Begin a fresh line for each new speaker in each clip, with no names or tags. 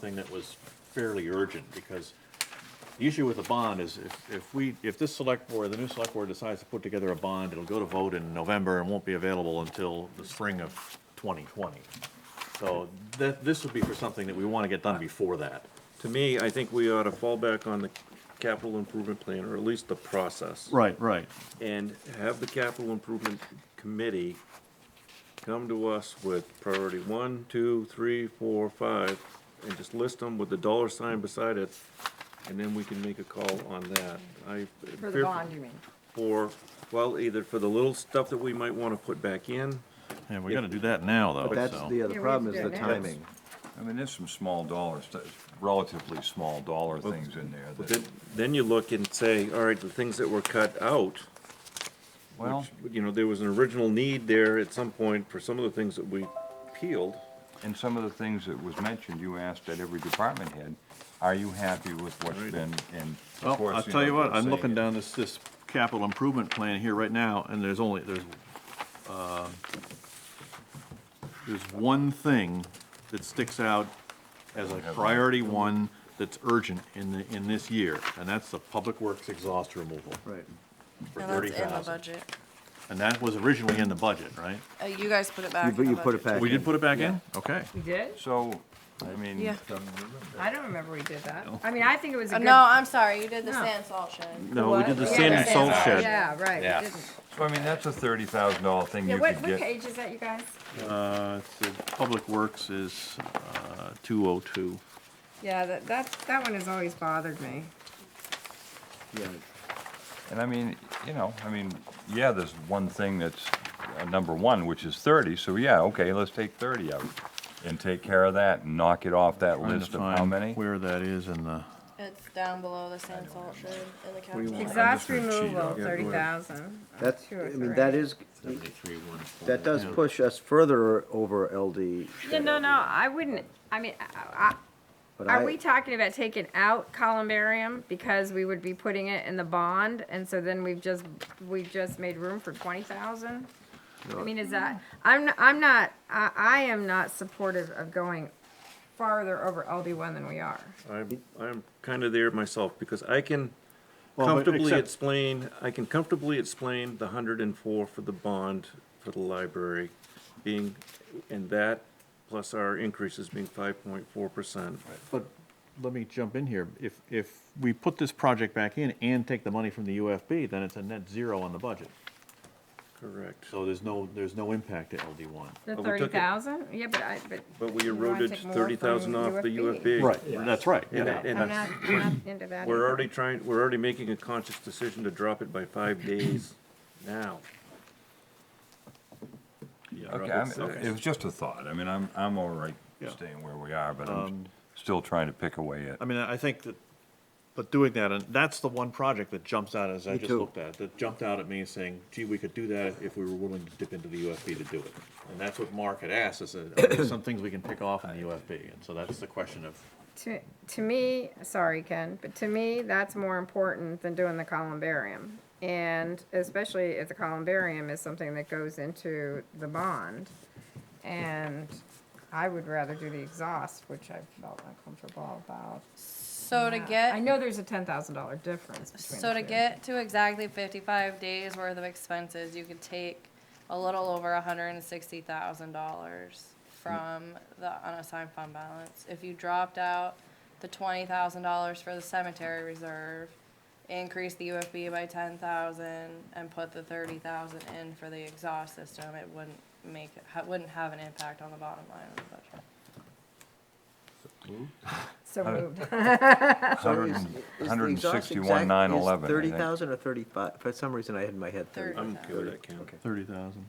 thing that was fairly urgent, because the issue with a bond is if, if we, if this select board, the new select board decides to put together a bond, it'll go to vote in November and won't be available until the spring of twenty twenty. So that, this would be for something that we want to get done before that.
To me, I think we ought to fall back on the capital improvement plan, or at least the process.
Right, right.
And have the capital improvement committee come to us with priority one, two, three, four, five, and just list them with the dollar sign beside it, and then we can make a call on that. I.
For the bond, you mean?
For, well, either for the little stuff that we might wanna put back in,
And we got to do that now, though,
But that's
so.
the other
Yeah, we have
problem
to
is
do
the
it now. That's-
timing.
I mean, there's some small dollars, relatively small dollar things in there
but
that,
then, then you look and say, all right, the things that were cut out,
well,
which, you know, there was an original need there at some point for some of the things that we peeled.
and some of the things that was mentioned, you asked at every department head, are you happy with what's been, and of
Well,
course.
I'll
you
tell
know,
you what,
they'll
I'm
say,
looking down this, this capital improvement plan here right now, and there's only, there's, uh, there's one thing that sticks out as a priority one that's urgent in the, in this year, and that's the public works exhaust removal
Right.
for
And that's
thirty
in the
thousand.
budget.
And that was originally in the budget, right?
Uh, you guys put it back.
You put-
in the
you put it
budget.
back
We
in.
did put it back in? Okay.
We did?
So, I mean.
Yeah.
I don't remember we did that. I mean, I think it was a
Uh,
good.
no, I'm sorry. You did the
No.
sand salt shed.
No, we
What?
did the
Yeah,
sand and salt
sand
shed.
Yeah, right, we didn't.
So I mean, that's a thirty thousand dollar thing
Yeah,
you
what,
could
what
get.
page is that, you guys?
Uh, it's the Public Works is, uh, two oh two.
Yeah, that, that, that one has always bothered me.
Yeah.
And I mean, you know, I mean, yeah, there's one thing that's uh, number one, which is thirty, so yeah, okay, let's take thirty out. And take care of that and knock it off that
Trying to
list of how
find
many?
Where that is in the.
It's down below the sand salt shed in the capital.
want?
Exhaust
gonna cheat
removal,
on it.
thirty thousand.
That's, I mean, that is,
Seventy-three, one four.
that does push us further over LD.
Yeah, no, no, I wouldn't, I mean, I,
but
Are
I-
we talking about taking out columbarium because we would be putting it in the bond, and so then we've just, we've just made room for twenty thousand? I mean, is that, I'm, I'm not, I, I am not supportive of going farther over LD one than we are.
I'm, I'm kind of there myself, because I can
Well, but
comfortably
except-
explain, I can comfortably explain the hundred and four for the bond for the library being, and that plus our increases being five point four percent.
But let me jump in here. If, if we put this project back in and take the money from the UFB, then it's a net zero on the budget.
Correct.
So there's no, there's no impact to LD one.
The
But we
thirty
took it-
thousand, yeah, but I, but.
But we
you wanna
eroded
take more
thirty thousand
from
off the UFB.
that's right,
And, I-
yeah.
and
I'm
I-
not, I'm not into that.
we're
either.
already trying, we're already making a conscious decision to drop it by five days now.
Okay, I'm, it was just a thought. I mean, I'm, I'm all right
Yeah.
staying where we are, but I'm still trying to pick away at.
I mean, I think that, but doing that, and that's the one project that jumps out as I
Me
just
too.
looked at, that jumped out at me saying, gee, we could do that if we were willing to dip into the UFB to do it. And that's what Mark had asked, is that, are there some things we can pick off in the UFB? And so that's the question of,
To, to me, sorry, Ken, but to me, that's more important than doing the columbarium. And especially if the columbarium is something that goes into the bond. And I would rather do the exhaust, which I felt uncomfortable about.
So to
that.
get
I know there's a ten thousand dollar difference between
So
the
to
two.
get to exactly fifty-five days worth of expenses, you could take a little over hundred and sixty thousand dollars
Hmm.
from the unassigned fund balance. If you dropped out the twenty thousand dollars for the cemetery reserve, increase the UFB by ten thousand and put the thirty thousand in for the exhaust system, it wouldn't make, it ha- wouldn't have an impact on the bottom line of the budget.
So moved.
Hundred and sixty-one, nine eleven.
Thirty thousand or thirty-five, for some reason I had in my head
Thirty.
thirty.
I'm okay with that, Ken.
Thirty thousand.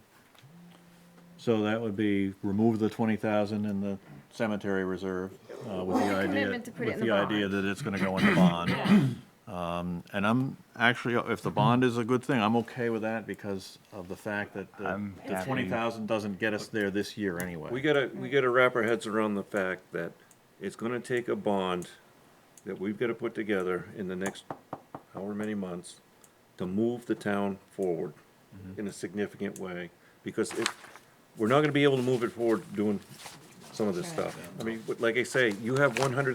So that would be remove the twenty thousand in the cemetery reserve, uh, with the idea,
commitment to put it in
with
the
the idea that it's gonna go in the bond. Um, and I'm, actually, if the bond is a good thing, I'm okay with that because of the fact that the
I'm
the
happy.
twenty thousand doesn't get us there this year
We
anyway.
gotta, we gotta wrap our heads around the fact that it's gonna take a bond that we've gotta put together in the next however many months to move the town forward in a significant way, because if, we're not gonna be able to move it forward doing some of this stuff. I mean, like I say, you have one hundred